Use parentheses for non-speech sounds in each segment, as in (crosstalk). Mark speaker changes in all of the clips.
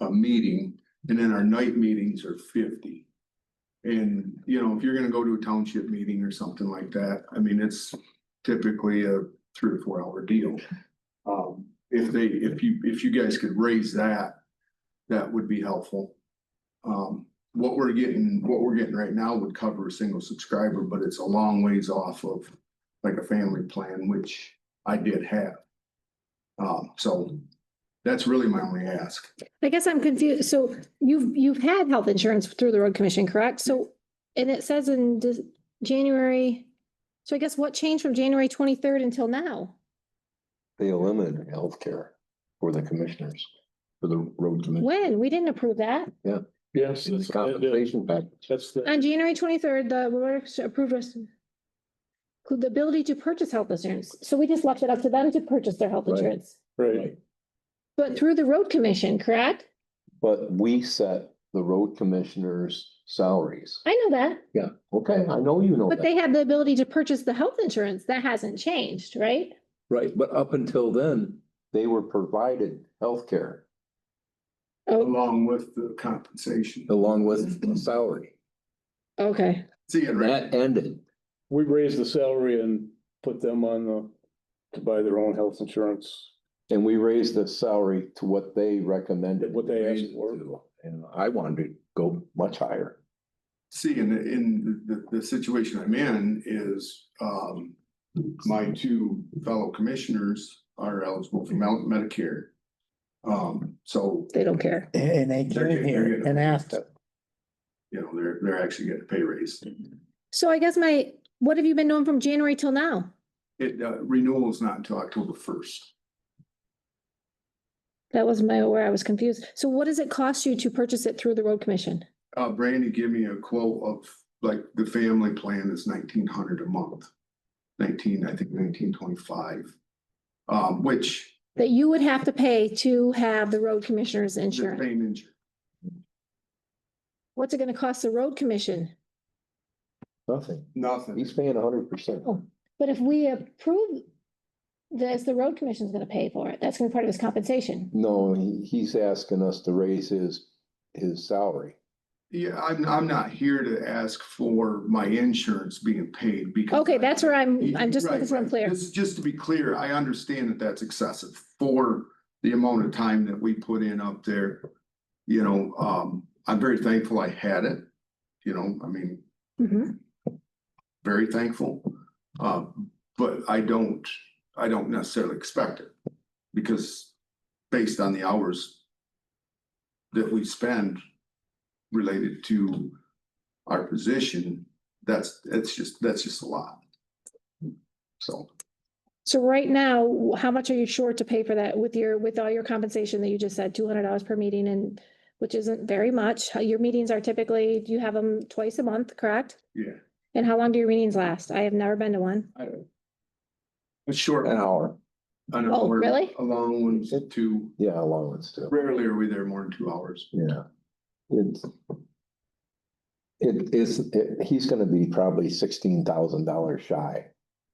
Speaker 1: a meeting, and then our night meetings are fifty. And, you know, if you're gonna go to a township meeting or something like that, I mean, it's typically a three or four hour deal. Um, if they, if you, if you guys could raise that, that would be helpful. Um, what we're getting, what we're getting right now would cover a single subscriber, but it's a long ways off of like a family plan, which I did have. Um, so that's really my only ask.
Speaker 2: I guess I'm confused. So you've, you've had health insurance through the road commission, correct? So, and it says in Dis- January. So I guess what changed from January twenty-third until now?
Speaker 3: They eliminated healthcare for the commissioners, for the road commissioners.
Speaker 2: When? We didn't approve that.
Speaker 4: Yes,
Speaker 3: In the
Speaker 4: that's, that-
Speaker 3: compensation package.
Speaker 4: that's the,
Speaker 2: On January twenty-third, the road commission approved us. include The ability to purchase health insurance. So we just left it up to them to purchase their health
Speaker 3: Right.
Speaker 2: insurance.
Speaker 4: right,
Speaker 2: But through the road commission, correct?
Speaker 3: But we set the road commissioners' salaries.
Speaker 2: I know that,
Speaker 3: Yeah, okay, I know you know
Speaker 2: but
Speaker 3: that.
Speaker 2: they had the ability to purchase the health insurance. That hasn't changed, right?
Speaker 3: Right, but up until then, they were provided healthcare
Speaker 2: Oh,
Speaker 1: Along with the compensation.
Speaker 3: along with a salary.
Speaker 2: Oh, okay.
Speaker 1: See it
Speaker 3: And
Speaker 1: right.
Speaker 3: that ended.
Speaker 4: we raised the salary and put them on the, to buy their own health insurance.
Speaker 3: And we raised the salary to what they recommended.
Speaker 4: What they asked for.
Speaker 3: And I wanted to go much higher.
Speaker 1: See, in the, in the, the situation I'm in is, um, my two fellow commissioners are eligible for Mel- Medicare. Um, so,
Speaker 2: They don't care.
Speaker 5: And they
Speaker 1: They're
Speaker 5: came
Speaker 1: getting- they're
Speaker 5: here
Speaker 1: getting
Speaker 5: and
Speaker 1: a
Speaker 5: asked
Speaker 1: raise.
Speaker 5: it.
Speaker 1: you know, they're, they're actually getting a pay raise.
Speaker 2: So I guess my, what have you been doing from January till now?
Speaker 1: It, uh, renewal is not until October first.
Speaker 2: That was my, where I was confused. So what does it cost you to purchase it through the road commission?
Speaker 1: Uh, Brandy gave me a quote of, like, the family plan is nineteen hundred a month. Nineteen, I think nineteen twenty-five. Um, which
Speaker 2: That you would have to pay to have the road commissioner's
Speaker 1: the
Speaker 2: insurance?
Speaker 1: same injury.
Speaker 2: What's it gonna cost the road commission?
Speaker 3: Nothing.
Speaker 1: Nothing.
Speaker 3: He's paying hundred percent.
Speaker 2: Oh. But if we approve this, the road commission's gonna pay for it. That's gonna be part of his compensation.
Speaker 3: No, he, he's asking us to raise his, his salary.
Speaker 1: Yeah, I'm, I'm not here to ask for my insurance being paid because.
Speaker 2: Okay, that's where I'm,
Speaker 1: You-
Speaker 2: I'm just
Speaker 1: right,
Speaker 2: looking for I'm
Speaker 1: right.
Speaker 2: clear.
Speaker 1: Just, just to be clear, I understand that that's excessive for the amount of time that we put in up there. You know, um, I'm very thankful I had it, you know, I mean,
Speaker 2: Mhm.
Speaker 1: very thankful. Uh, but I don't, I don't necessarily expect it because based on the hours that we spend related to our position, that's, that's just, that's just a lot. So
Speaker 2: So right now, how much are you short to pay for that with your, with all your compensation that you just said, two hundred dollars per meeting and which isn't very much. Your meetings are typically, you have them twice a month, correct?
Speaker 1: Yeah.
Speaker 2: And how long do your meetings last? I have never been to one.
Speaker 1: it's short.
Speaker 3: An hour,
Speaker 1: An
Speaker 2: Oh,
Speaker 1: hour,
Speaker 2: really?
Speaker 1: A long one, two,
Speaker 3: yeah, allowance too.
Speaker 1: rarely are we there more than two hours.
Speaker 3: Yeah. It's. It is, it- he's gonna be probably sixteen thousand dollars shy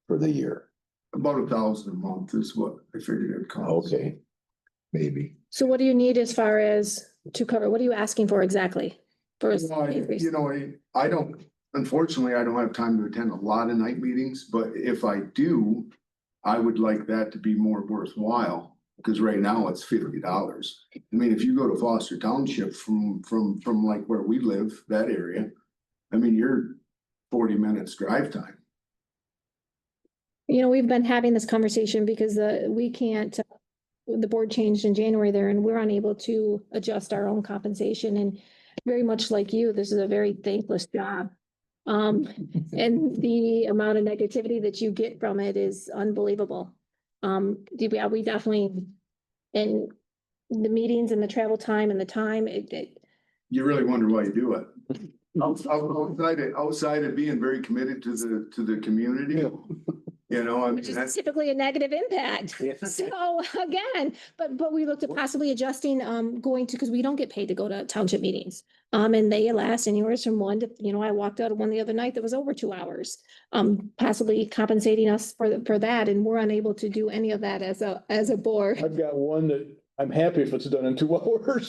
Speaker 3: for the year.
Speaker 1: About a thousand a month is what I figured it would cost.
Speaker 3: Okay, maybe.
Speaker 2: So what do you need as far as to cover? What are you asking for exactly? For his
Speaker 1: Well, I-
Speaker 2: increase?
Speaker 1: You know, I- I don't, unfortunately, I don't have time to attend a lot of night meetings, but if I do, I would like that to be more worthwhile, because right now it's fifty dollars. I mean, if you go to Foster Township from, from, from like where we live, that area, I mean, you're forty minutes drive time.
Speaker 2: You know, we've been having this conversation because the, we can't, uh, the board changed in January there and we're unable to adjust our own compensation and very much like you, this is a very thankless job. Um, and the amount of negativity that you get from it is unbelievable. Um, yeah, we definitely, and the meetings and the travel time and the time, it, it,
Speaker 1: You really wonder why you do it. Outs- out- Outside, of- outside of being very committed to the, to the community, you know, I mean,
Speaker 2: which is
Speaker 1: that's,
Speaker 2: typically a negative impact. So again, but, but we looked at possibly adjusting, um, going to, because we don't get paid to go to township meetings. Um, and they last anywhere from one to, you know, I walked out of one the other night that was over two hours. Um, possibly compensating us for, the- for that, and we're unable to do any of that as a, as a board.
Speaker 4: I've got one that I'm happy if it's done in two (laughs) hours.